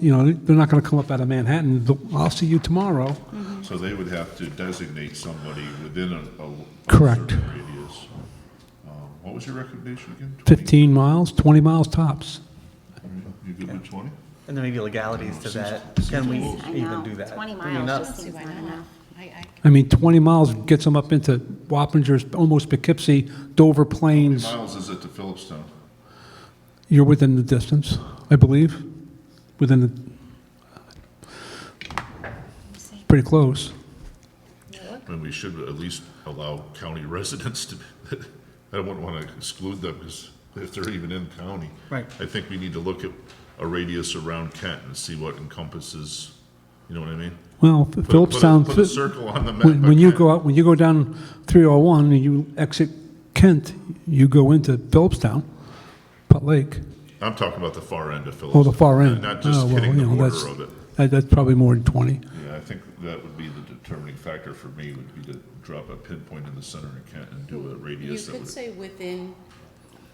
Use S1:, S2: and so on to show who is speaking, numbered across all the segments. S1: you know, they're not going to come up out of Manhattan. They'll- I'll see you tomorrow.
S2: So they would have to designate somebody within a, a.
S1: Correct.
S2: certain Radius. Um, What was your recommendation again? 20?
S1: 15 miles, 20 miles tops.
S2: You good with twenty?
S3: And there may be legalities to that. Can we even do that? I
S4: Twenty
S3: mean,
S4: miles
S3: not-
S4: just seems not enough.
S5: I, I,
S1: I mean, 20 miles gets them up into Wappingers, almost Poughkeepsie, Dover Plains.
S2: Miles is it to Phillipstown?
S1: You're within the distance, I believe, within the, pretty close.
S2: And we should at least allow county residents to, I wouldn't want to exclude them because if they're even in county.
S3: Right.
S2: I think we need to look at a radius around Kent and see what encompasses, you know what I mean?
S1: Well,
S2: Put a- put a-
S1: Phillipstown,
S2: Put a circle on the map.
S1: when,
S2: by
S1: when you
S2: Kent.
S1: go out, when you go down 301 and you exit Kent, you go into Phillipstown, Putt Lake,
S2: I'm talking about the far end of Phillipstown.
S1: or the far end.
S2: Not just
S1: Oh, well,
S2: hitting the
S1: you know,
S2: border
S1: that's-
S2: of it.
S1: that- That's probably more than 20.
S2: Yeah, I think that would be the determining factor for me, would be to drop a pinpoint in the center of Kent and do a
S5: you
S2: radius that
S5: could
S2: would.
S5: say within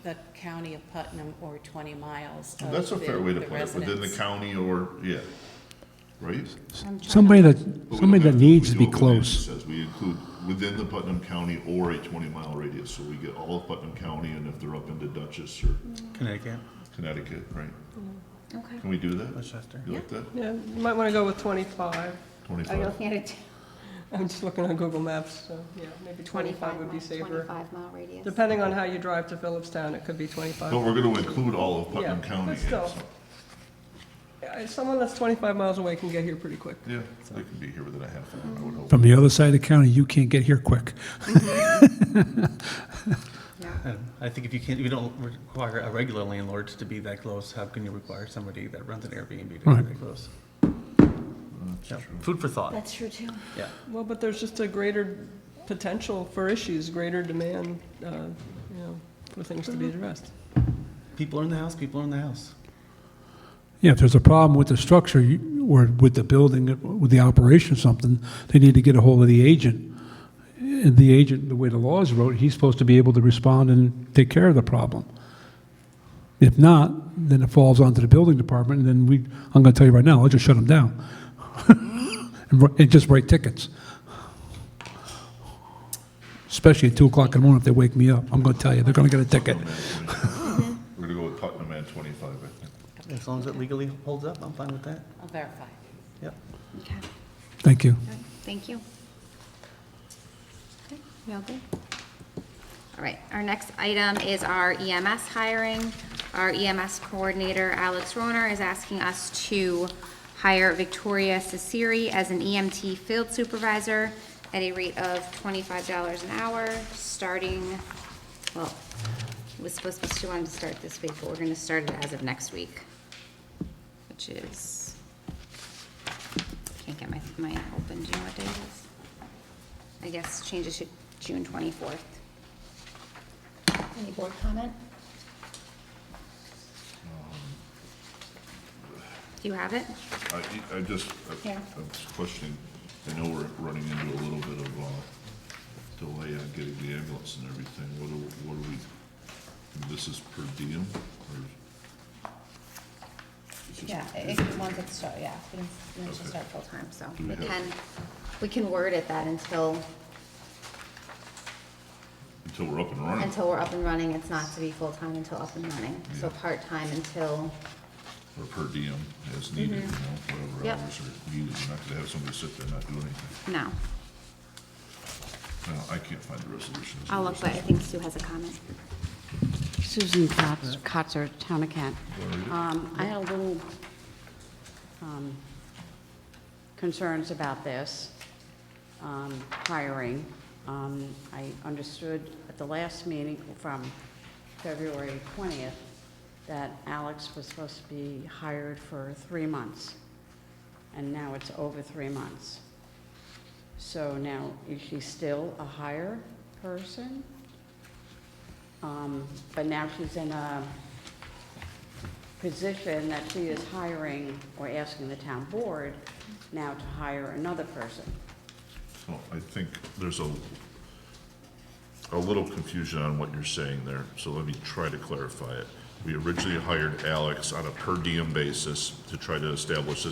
S5: the county of Putnam or twenty miles of
S2: That's a fair
S5: uh, the-
S2: way to
S5: the
S2: put it, within the
S5: residence.
S2: county or, yeah, right?
S1: Somebody that,
S2: But we
S1: somebody
S2: don't
S1: that
S2: have-
S1: needs
S2: we
S1: to be
S2: do what Nancy
S1: close.
S2: Says we include within the Putnam County or a twenty-mile radius, so we get all of Putnam County, and if they're up into Dutchess or
S3: Connecticut,
S2: Connecticut, right?
S4: Okay.
S2: Can we do that?
S3: Westchester.
S2: You like that?
S6: Yeah, you might want to go with 25. I
S2: Twenty-five?
S6: don't, I'm just looking on Google Maps, so, yeah, maybe 25 would be safer.
S4: Twenty-five mile radius.
S6: Depending on how you drive to Phillipstown, it could be
S2: No,
S6: 25.
S2: we're gonna include all of
S6: Yeah,
S2: Putnam County.
S6: but still. Yeah, Someone that's 25 miles away can get here pretty quick.
S2: Yeah, they can be here within a half hour, I would hope.
S1: From the other side of the county, you can't get here quick.
S3: And I think if you can't, if you don't require a regular landlord to be that close, how can you require somebody that runs an Airbnb to
S1: Right.
S3: be that close? Yeah, Food for thought,
S4: That's true too.
S3: yeah.
S6: Well, but there's just a greater potential for issues, greater demand, uh, you know, for things to be
S4: Mm-hmm.
S6: addressed.
S3: People are in the house, people are in the house.
S1: Yeah, if there's a problem with the structure you- or with the building, with the operation or something, they need to get a hold of the agent. And the agent, the way the law is wrote, he's supposed to be able to respond and take care of the problem. If not, then it falls onto the building department, and then we, I'm gonna tell you right now, I'll just shut them down. And wri- And just write tickets. Especially at two o'clock in the morning if they wake me up, I'm gonna tell you, they're gonna get a ticket.
S2: Putnam at 25. We're gonna go with Putnam at twenty-five, I think.
S3: As long as it legally holds up, I'm fine with that,
S5: I'll verify.
S3: yep.
S4: Okay.
S1: Thank you.
S4: All right. Thank you. Okay, we all good? All right, our next item is our EMS hiring. Our EMS coordinator, Alex Rohner, is asking us to hire Victoria Cesari as an EMT field supervisor at a rate of twenty-five dollars an hour, starting, well, it was supposed to be, she wanted to start this week, but we're gonna start it as of next week, which is, can't get my, my open, do you know what day it is? I guess change it to June twenty-fourth. Any board comment? Do you have it?
S2: I, I just, I
S4: Yeah.
S2: I was questioning, I know we're running into a little bit of, uh, delay on getting the ambulance and everything, what are, what are we, this is per diem, or? it's just-
S4: Yeah, if you want to start, yeah, we can, we should
S2: Okay.
S4: start full-time, so
S2: we
S4: we
S2: have-
S4: can, we can word it that until,
S2: Until we're up and running,
S4: until we're up and running, it's not to be full-time until up and running. So part-time until,
S2: or per diem as needed, you know, whatever
S4: Mm-hmm. Yep.
S2: hours are needed, you're not gonna have somebody sit there and not do anything.
S4: no,
S2: Now, I can't find the resolution. Is there
S4: I'll
S2: a
S4: look, but I
S2: resolution?
S4: think Sue has a comment.
S7: Susan Kotz- Kotzer, Town of Kent. Um, I had a little um, concerns about this um, hiring. Um, I understood at the last meeting from February 20th that Alex was supposed to be hired for three months, and now it's over three months. So now, is she still a hire person? Um, But now she's in a position that she is hiring or asking the town board now to hire another person.
S2: Well, I think there's a, a little confusion on what you're saying there, so let me try to clarify it. we originally hired Alex on a per diem basis to try to establish this